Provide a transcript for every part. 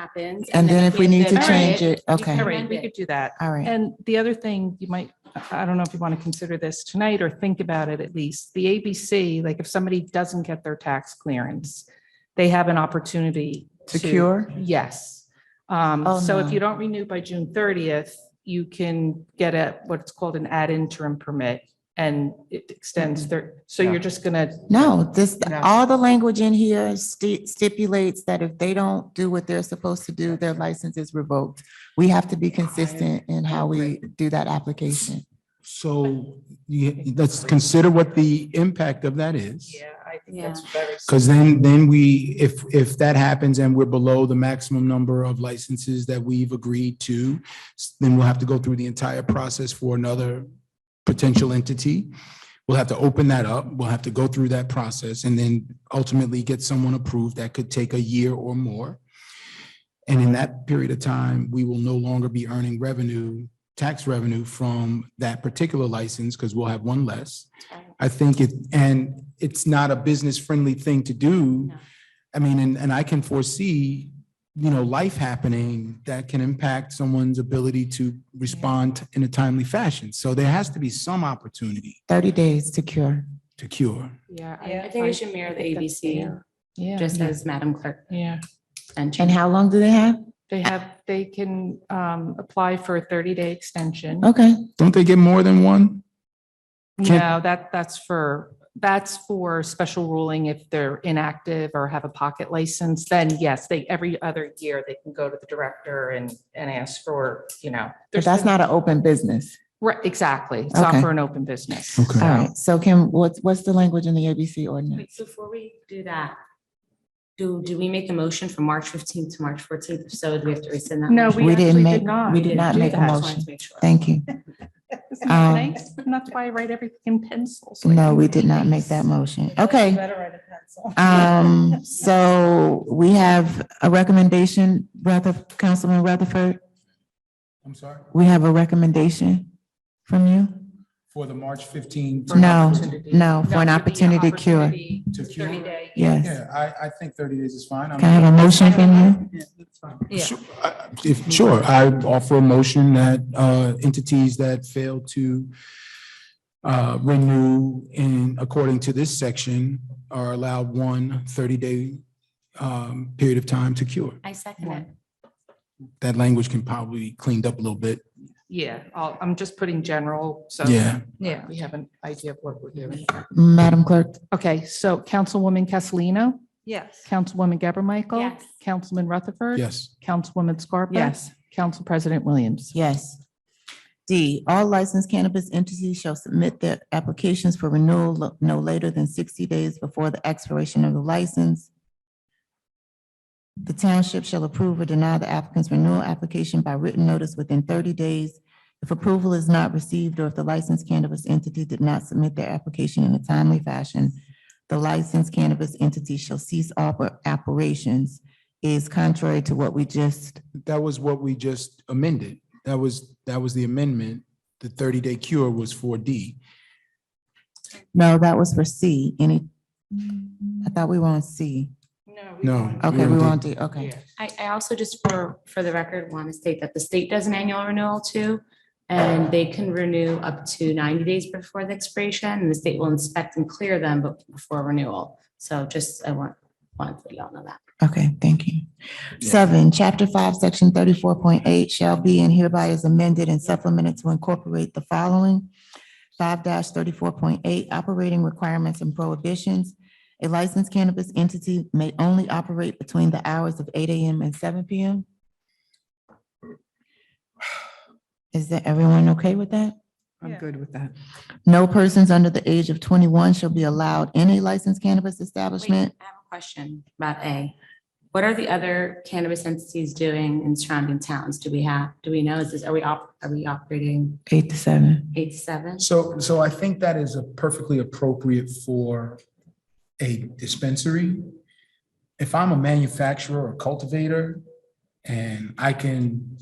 happens. And then if we need to then- change it, All okay, right. And we could do that. all right. And the other thing you might, I I don't know if you want to consider this tonight or think about it at least, the ABC, like if somebody doesn't get their tax clearance, they have an opportunity to. Secure? Yes. Um, Oh, so no. if you don't renew by June thirtieth, you can get a, what's called an ad interim permit and it extends there. So you're just gonna. Mm-hmm. No, this, No. all the language in here sti- stipulates that if they don't do what they're supposed to do, their license is revoked. We have to be consistent in how we do that application. So you- let's consider what the impact of that is. I think that's very. Because then, then we, if, if that happens and we're below the maximum number of licenses that we've agreed to, s- then we'll have to go through the entire process for another potential entity. We'll have to open that up. We'll have to go through that process and then ultimately get someone approved. That could take a year or more. And in that period of time, we will no longer be earning revenue, tax revenue from that particular license because we'll have one less. I think it, and it's not a business friendly thing to do. No. I mean, and, and I can foresee, you know, life happening that can impact someone's ability to respond in a timely fashion. So there has to be some opportunity Thirty days to cure. to cure. Yeah. I think we should mirror the ABC, Yeah. just as Madam Clerk Yeah. mentioned. And how long do they have? They have, they can um, apply for a 30-day extension. Okay, Don't they get more than one? Can- No, that, that's for, that's for special ruling if they're inactive or have a pocket license, then yes, they, every other year, they can go to the director and, and ask for, you know. but there's that's been- not an open business. Right, exactly. It's not Okay. for an open business. All Okay. So- right, so Kim, what's, what's the language in the ABC ordinance? Wait, Before we do that, do, do we make a motion from March fifteenth to March fourteenth? If so, do we have to rescind that? No, motion? we We didn't actually make, did not. we did not do make a that. Just wanted to motion. make sure. Thank you. Isn't Um, that nice? And that's why I write everything in pencil. so I No, can we read did not make things. that motion. Okay. Um, so we have a recommendation, Ruther, Councilman Rutherford, I'm sorry, we have a recommendation from you? for the March 15. For an No, opportunity. no, for an That would be an opportunity to cure. opportunity, To cure. 30-day. Yes. I, I think 30 days is fine. Can I have a motion from you? Yeah. Sure, I- I- uh, If, sure, I offer a motion that uh, entities that fail to uh, renew in, according to this section, are allowed one 30-day um, period of time to cure. I second it. That language can probably be cleaned up a little bit. Yeah, I'll, I'm just putting general, so. Yeah. Yeah. We have an idea of what we're doing. Madam Clerk, Okay, so Councilwoman Castellino, Yes. Councilwoman Gabor Michael. Yes. Councilman Rutherford. Yes. Councilwoman Scarpa. Yes. Council President Williams. yes. D, all licensed cannabis entities shall submit their applications for renewal lo- no later than sixty days before the expiration of the license. The township shall approve or deny the applicant's renewal application by written notice within thirty days. If approval is not received or if the licensed cannabis entity did not submit their application in a timely fashion, the licensed cannabis entity shall cease all oper- operations is contrary to what we just That was what we just amended. That was, that was the amendment. The 30-day cure was 4D. No, that was for C. Any, I thought we were on C. No. Okay, we don't were on think- D, okay. I, I also just for, for the record, want to state that the state does an annual renewal too. And they can renew up to ninety days before the expiration and the state will inspect and clear them but before renewal. So just, I want, wanted to y'all know that. Okay, thank you. Yeah. Seven, chapter five, section thirty-four point eight shall be and hereby is amended and supplemented to incorporate the following. Five thirty-four point eight, operating requirements and prohibitions. A licensed cannabis entity may only operate between the hours of eight AM and seven PM. Is that everyone okay with that? Yeah. I'm good with that. No persons under the age of twenty-one shall be allowed in a licensed cannabis Wait, I establishment. have a question about A. What are the other cannabis entities doing in surrounding towns? Do we have, do we know, is this, are we op, are we operating Eight to seven. eight to seven? So, so I think that is a perfectly appropriate for a dispensary. If I'm a manufacturer or cultivator and I can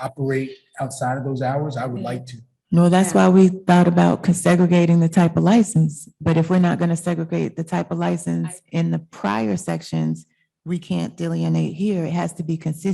operate outside of those hours, I would like to. No, that's why we thought about con- segregating the type of license. But if we're not gonna segregate the type of license in the prior sections, we can't delineate here. It has to be consistent